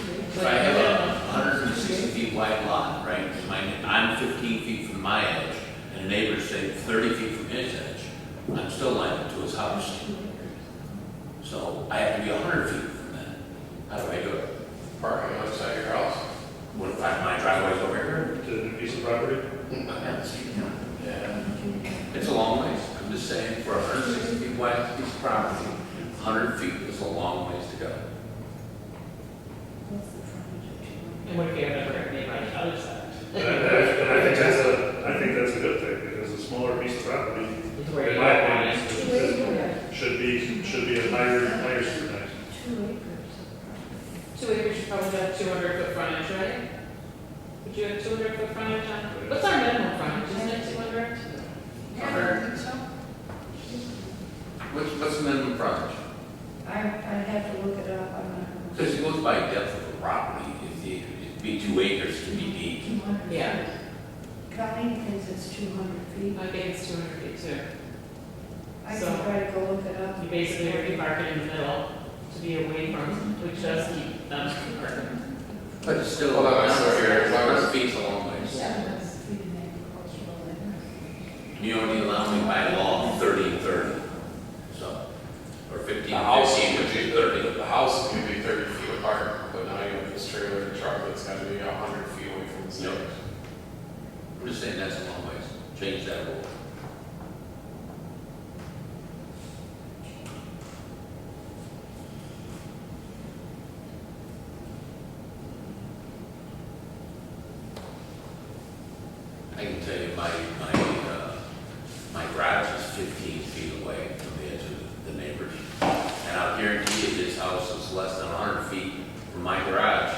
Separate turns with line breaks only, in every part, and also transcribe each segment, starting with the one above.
If I have a hundred and sixty feet wide lot, right, and my, I'm fifteen feet from my edge, and a neighbor's say thirty feet from his edge, I'm still liable to his house. So I have to be a hundred feet from that. How do I do it?
parking outside your house.
What if I, my driveway's over here?
the piece of property.
Yeah, it's, you know,
Yeah.
It's a long ways. I'm just saying, for a hundred and sixty feet wide piece of property, a hundred feet is a long ways to go.
And what if you have a brick made on the other side?
And I, and I think that's a, I think that's a good thing, because a smaller piece of property,
It's
in my
where you want
opinion,
it.
is- is- should be, should be a higher, higher scrutinized.
Two acres.
Two acres, you probably have two hundred foot frontage, right? Would you have two hundred foot frontage on, what's our minimum frontage, isn't it two hundred?
Yeah, I think so.
What's, what's the minimum frontage?
I, I'd have to look it up, I'm not.
Because it goes by depth of the property, if the, it'd be two acres to be deep.
200.
Yeah.
Colleen thinks it's two hundred feet.
I think it's two hundred feet too.
I
So-
can try to go look it up.
You basically have to park it in the middle to be away from, which does keep them from parking.
But it's still.
Hold on, I'm sorry, Eric,
It's
why was-
not feet along ways.
Seven hundred feet in agricultural area.
You only allow me by law thirty and thirty, so, or fifteen,
The house
fifteen,
would
which
be
is
thirty,
thirty.
the house would be thirty feet apart, but now you have this trailer and truck that's gotta be a hundred feet away from the
Yep.
neighbors.
I'm just saying that's a long ways, change that rule. I can tell you, my, my, uh, my garage is fifteen feet away from the edge of the neighbors. And I'll guarantee you, this house is less than hundred feet from my garage.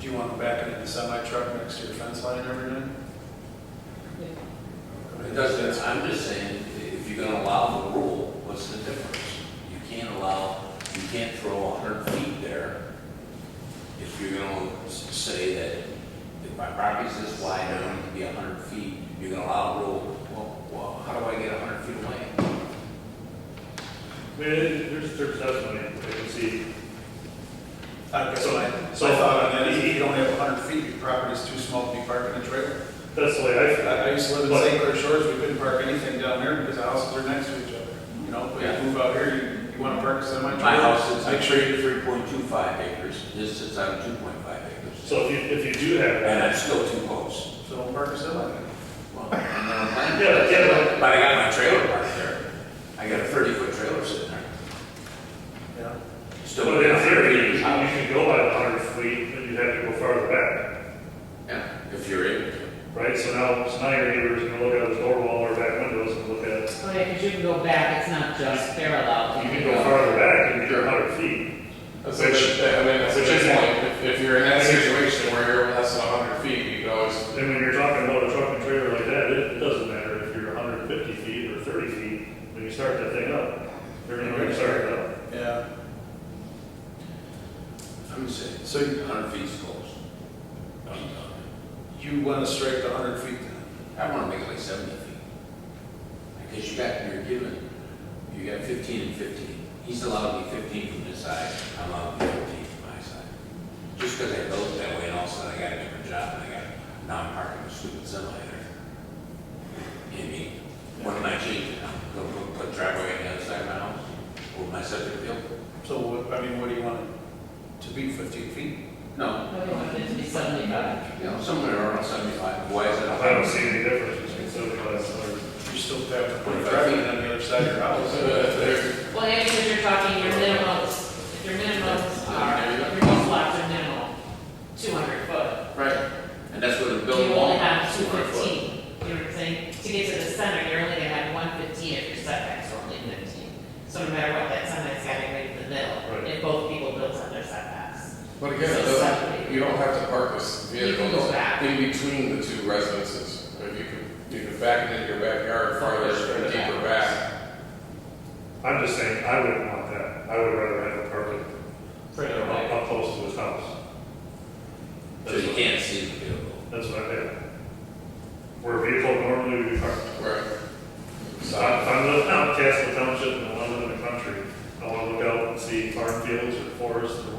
Do you want them backing in the semi truck next to your fence line every night?
It doesn't, I'm just saying, if you're gonna allow the rule, what's the difference? You can't allow, you can't throw a hundred feet there if you're gonna s- say that if my property's this wide, I don't need to be a hundred feet, you're gonna allow a rule, well, well, how do I get a hundred feet away?
I mean, it- there's, there's definitely, I can see,
I guess
So-
my,
so-
my thought on that is if you don't have hundred feet, your property's too small to be parking a trailer.
that's the way I feel.
I, I used to live in
But-
St. Clair Shores, we couldn't park anything down there because the houses are next to each other. You know, but
Yeah.
you move out here, you, you wanna park a semi trailer.
My house is
Make sure
actually
you,
three point two five acres, this is on two point five acres.
So if you, if you do have
And
that,
I'm still too close.
so don't park a semi.
Well, I'm not planning.
Yeah, yeah.
But I got my trailer parked there. I got a thirty foot trailer sitting there.
Yeah.
Still.
but in theory, you can you can go by the hundred feet, but you have to go farther back,
Yeah, if you're able to.
right? So now, so now your neighbors are gonna look out his door wall or back windows and look at,
Oh, yeah, because you can go back, it's not just parallel.
you can go farther back and you're a hundred feet.
That's a good, I mean, that's a good point, if, if you're in that situation where you're less than a hundred feet, you could always,
And when you're talking about a truck and trailer like that, it, it doesn't matter if you're hundred and fifty feet or thirty feet, when you start that thing up, they're gonna, they're gonna start it up.
Yeah,
I'm saying,
so you-
hundred feet's close.
you wanna strike the hundred feet then.
I wanna make it like seventy feet. Because you got, you're given, you got fifteen and fifteen. He's allowed me fifteen from this side, I'm allowed me fifteen from my side. Just because I built it that way and all of a sudden I got a different job and I got, now I'm parking a stupid semi there. You know what I mean? What am I changing now? Go, go put driveway on the other side of my house? Or my septic field?
So, what- I mean, what do you want it to be, fifteen feet?
No,
I Oh, want it to be seventy-five.
you know, somewhere around seventy-five. Why is it a
I don't see any difference between seventy-five and hundred.
You still have to put a driveway on the other side of your house.
so there's,
Well, yeah, because you're talking your minimums, your minimums are, your most lots are minimal, two hundred foot.
Right, and that's where the
You
building wall.
only have two
is, 200 foot.
fifteen, you know what I'm saying? To get to the center, you're only gonna have one fifteen if your setback's are only fifteen. So no matter what, that setback's gotta be in the middle,
Right.
if both people build on their setbacks.
but again, it doesn't- you don't have to park this vehicle
You can go back.
in between the two residences. If you could, you could back it into your backyard farther and deeper back.
I'm just saying, I wouldn't want that, I would rather have a parking
Further
up,
away.
up close to his house.
So you can't see the building.
That's what I did. Where a vehicle normally would be parked.
Right.
So I- if I'm living out in Castle Township and I want to live in the country, I want to look out and see farm fields or forests or